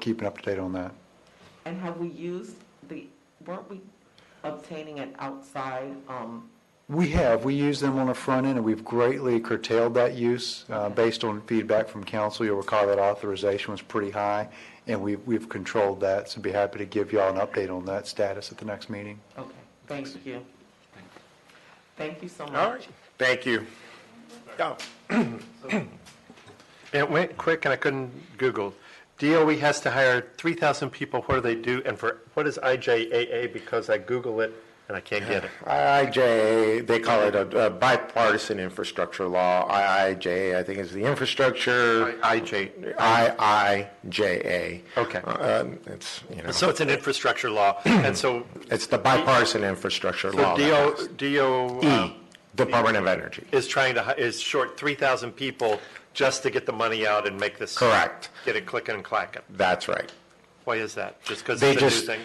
keeping up to date on that. And have we used the, weren't we obtaining an outside, um, We have, we use them on the front end, and we've greatly curtailed that use uh, based on feedback from council. You'll recall that authorization was pretty high, and we- we've controlled that, so be happy to give y'all an update on that status at the next meeting. okay, thank you. Thank you so much. All right. Thank you. Oh. It went quick and I couldn't Google. DOE has to hire 3,000 people. What do they do? And for, what is IJAA? Because I Google it and I can't get it. IIJA, they call it a a bipartisan infrastructure law, IIJA, I think is the infrastructure, IJ. IIJA. Okay. Uh, um, It's, you know, So it's an infrastructure law. And so, it's the bipartisan infrastructure so E, law. DO, that DO passed. uh, E, Department of Energy. is trying to, hi- is short 3,000 people just to get the money out and make this. Correct. Get it clicking and clacking. That's right. Why is that? Just because They it's a new just, thing?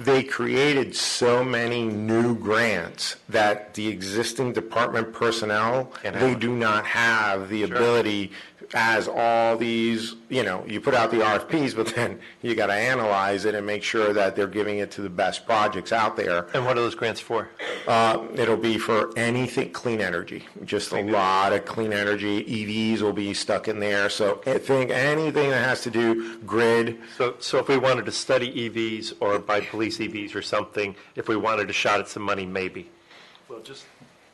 they created so many new grants that the existing department personnel, Can't they have it. do not have the ability as all these, you know, you put out the RFPs, but then you got to analyze it and make sure that they're giving it to the best projects out there. And what are those grants for? Uh, It'll be for anything, clean energy, just a lot of clean energy. EVs will be stuck in there, so I think anything that has to do grid, So, so if we wanted to study EVs or buy police EVs or something, if we wanted a shot at some money, maybe. Well, just,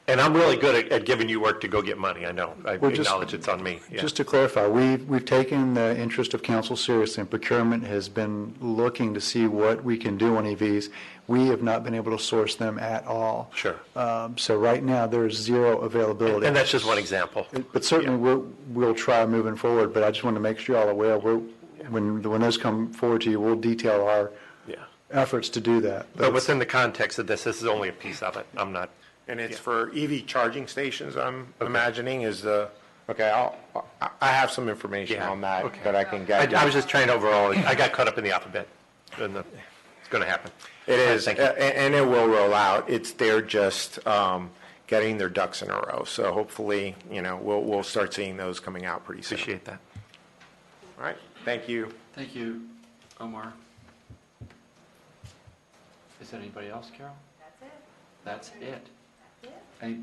And I'm really good at, at giving you work to go get money, I know. I Well, just- acknowledge it's on me, yeah. Just to clarify, we've, we've taken the interest of council seriously, and procurement has been looking to see what we can do on EVs. We have not been able to source them at all. Sure. Um, So right now, there is zero availability. And that's just one example. But certainly, we'll, we'll try moving forward, but I just want to make sure y'all are aware, we're, when, when those come forward to you, we'll detail our Yeah. efforts to do that. But within the context of this, this is only a piece of it. I'm not, And it's for EV charging stations, I'm imagining, is the, okay, I'll, I- I have some information Yeah, on that okay. that I can I, get. I was just trying to overall, I got caught up in the alphabet. And the- It's going to happen. It is, a- Thank you. a- and it will roll out. It's, they're just um, getting their ducks in a row. So hopefully, you know, we'll, we'll start seeing those coming out pretty soon. Appreciate that. All right, thank you. thank you, Omar. Is there anybody else, Carol? That's it. That's it? That's it.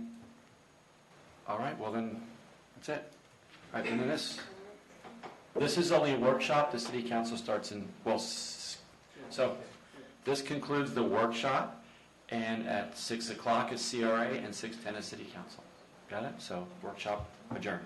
All right, well then, that's it. All right, and then this, this is only a workshop, the city council starts in, well, s- so, this concludes the workshop, and at 6 o'clock is CRA and 6:10 is city council. Got it? So workshop adjourned.